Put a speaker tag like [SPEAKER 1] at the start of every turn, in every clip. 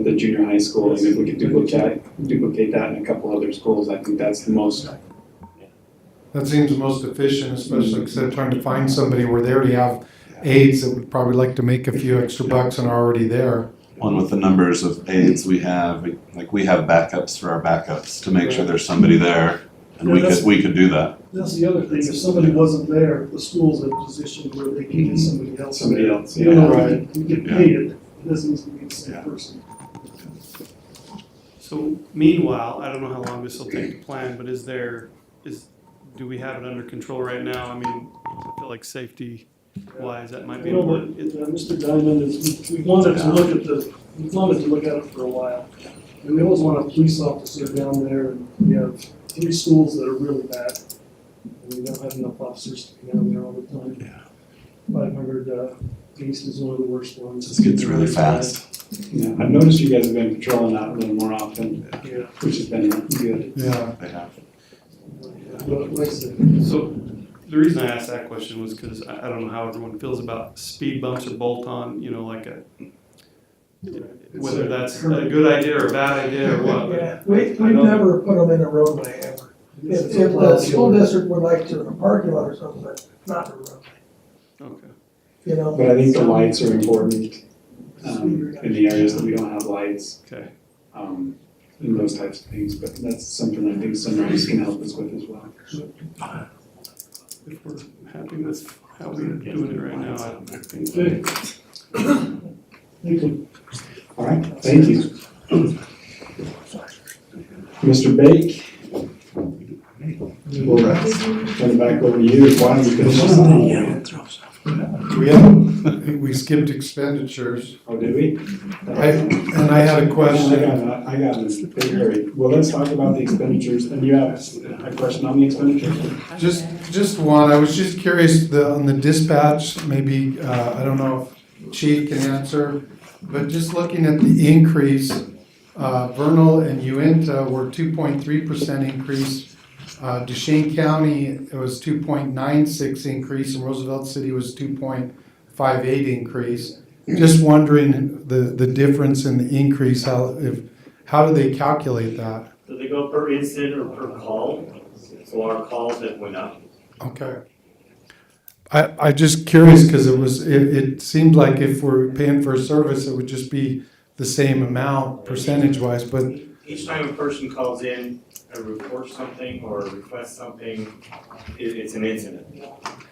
[SPEAKER 1] junior high school, and if we could duplicate, duplicate that in a couple other schools, I think that's the most.
[SPEAKER 2] That seems the most efficient, especially instead of trying to find somebody where they already have aides that would probably like to make a few extra bucks and are already there.
[SPEAKER 3] One with the numbers of aides we have, we- like we have backups for our backups to make sure there's somebody there. And
[SPEAKER 4] Yeah,
[SPEAKER 3] we could,
[SPEAKER 4] that's-
[SPEAKER 3] we could do that.
[SPEAKER 4] That's the other thing, if somebody wasn't there, the school's in a position where they can get somebody else in
[SPEAKER 1] Somebody
[SPEAKER 4] there.
[SPEAKER 1] else,
[SPEAKER 4] You know,
[SPEAKER 1] yeah.
[SPEAKER 4] right, you get paid, it doesn't need to be the same
[SPEAKER 3] Yeah.
[SPEAKER 4] person.
[SPEAKER 5] So meanwhile, I don't know how long this will take to plan, but is there, is, do we have it under control right now? I mean, I feel like safety wise, that might be
[SPEAKER 4] You know, but,
[SPEAKER 5] important. It-
[SPEAKER 4] uh, Mr. Diamond is, we we wanted to look at the, we wanted to look at it for a while. And we always want a police officer down there, and we have three schools that are really bad. And we don't have enough officers to be down there all the time.
[SPEAKER 3] Yeah.
[SPEAKER 4] Five hundred, uh, East is one of the worst ones.
[SPEAKER 3] This gets really fast.
[SPEAKER 1] Yeah, I've noticed you guys have been patrolling out a little more often,
[SPEAKER 4] Yeah,
[SPEAKER 1] which has been good.
[SPEAKER 2] Yeah.
[SPEAKER 3] They have-
[SPEAKER 4] but like I said,
[SPEAKER 5] So the reason I asked that question was because I, I don't know how everyone feels about speed bumps or bolt on, you know, like a, whether that's a good idea or a bad idea or what. but-
[SPEAKER 6] Yeah, we,
[SPEAKER 5] I
[SPEAKER 6] we've
[SPEAKER 5] know-
[SPEAKER 6] never put them in a roadway ever. If, if the school district would like to, in a parking lot or something, but not in a roadway,
[SPEAKER 5] Okay.
[SPEAKER 6] you know?
[SPEAKER 1] But I think the lights are important, um, in the areas that we don't have lights.
[SPEAKER 5] Okay.
[SPEAKER 1] Um, and those types of things, but that's something I think Sunrise can help us with as well.
[SPEAKER 5] If we're happy with how we're doing it right now, I think.
[SPEAKER 4] Okay. Thank you.
[SPEAKER 1] All right, thank you. Mr. Bake? We'll turn it back over to you. Why don't you finish this one?
[SPEAKER 2] We had, we skipped expenditures.
[SPEAKER 1] Oh, did we?
[SPEAKER 2] I, and I had a
[SPEAKER 1] I
[SPEAKER 2] question.
[SPEAKER 1] got, I got this. Don't worry. Well, let's talk about the expenditures, and you have a question on the expenditures?
[SPEAKER 2] Just, just one, I was just curious, the, on the dispatch, maybe, uh, I don't know if Chief can answer, but just looking at the increase, uh, Vernal and Uinta were two point three percent increase. Uh, Duchesne County, it was two point nine six increase, and Roosevelt City was two point five eight increase. Just wondering the, the difference in the increase, how, if, how do they calculate that?
[SPEAKER 7] Do they go per incident or per call? So our calls that went up.
[SPEAKER 2] Okay. I, I just curious, because it was, it, it seemed like if we're paying for a service, it would just be the same amount percentage wise, but,
[SPEAKER 7] Each time a person calls in and reports something or requests something, i it's an incident.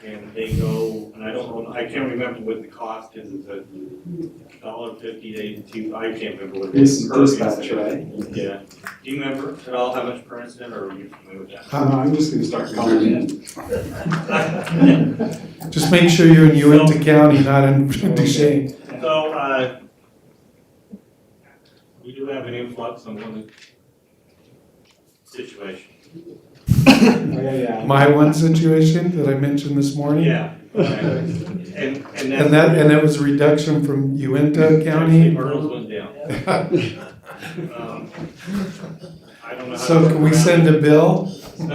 [SPEAKER 7] And they go, and I don't know, I can't remember what the cost is, it's a dollar fifty to two, I can't remember what it
[SPEAKER 1] This
[SPEAKER 7] is.
[SPEAKER 1] is
[SPEAKER 7] per
[SPEAKER 1] dispatch,
[SPEAKER 7] incident.
[SPEAKER 1] right?
[SPEAKER 7] Yeah. Do you remember at all how much per incident or are you familiar with
[SPEAKER 1] Uh, I'm just gonna start calling in. um,
[SPEAKER 7] that?
[SPEAKER 2] just make sure you're in Uinta County, not in Duchesne.
[SPEAKER 7] So, uh, we do have an influx on one situation.
[SPEAKER 1] Oh, yeah,
[SPEAKER 2] My one situation that I mentioned this morning.
[SPEAKER 7] Yeah. And, and that's.
[SPEAKER 2] And that, and that was a reduction from Uinta
[SPEAKER 7] Actually,
[SPEAKER 2] County.
[SPEAKER 7] Myrtle's went down. Um, I don't know. how to
[SPEAKER 2] So can we
[SPEAKER 7] work
[SPEAKER 2] send a bill?
[SPEAKER 7] around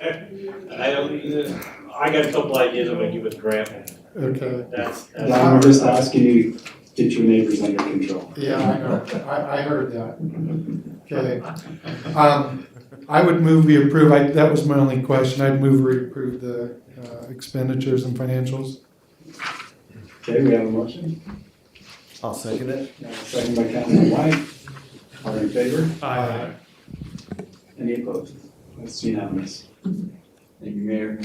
[SPEAKER 7] it. I don't, I got a couple ideas I'm gonna give with Grant.
[SPEAKER 2] Okay.
[SPEAKER 7] That's,
[SPEAKER 1] yeah.
[SPEAKER 7] that's.
[SPEAKER 1] Yeah, I'm just asking you, to get your neighbors under control.
[SPEAKER 2] Yeah, I know, I, I heard that. Okay. Um, I would move we approve, I, that was my only question, I'd move we approve the uh, expenditures and financials.
[SPEAKER 1] Okay, we have a motion.
[SPEAKER 8] I'll second it.
[SPEAKER 1] Uh, Second by Councilman White. All in favor?
[SPEAKER 5] I,
[SPEAKER 1] Any opposed? That's unanimous.
[SPEAKER 8] Thank you, Mayor.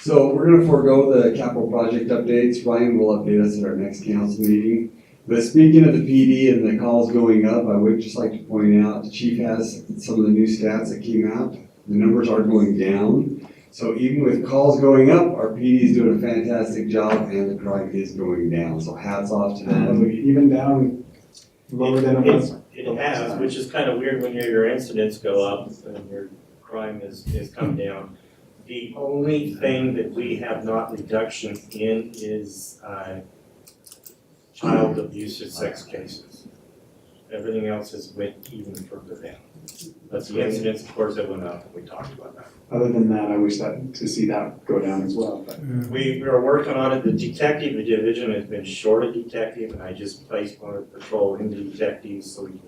[SPEAKER 8] So we're gonna forego the capital project updates. Ryan will update us at our next council meeting. But speaking of the PD and the calls going up, I would just like to point out, the chief has some of the new stats that came out. The numbers are going down. So even with calls going up, our PD is doing a fantastic job and the crime is going down. So hats off to
[SPEAKER 1] Are
[SPEAKER 8] them.
[SPEAKER 1] we even down lower than a month?
[SPEAKER 7] It has, which is kind of weird when your, your incidents go up and your crime is, is come down. The only thing that we have not reductions in is, uh, child abuse and sex cases. Everything else has went even further down. That's the incidents, of course, that went up, we talked about that.
[SPEAKER 1] Other than that, I wish that, to see that go down as well, but
[SPEAKER 7] We, we are working on it, the detective division has been short of detective, and I just placed one of the patrol into detectives so we can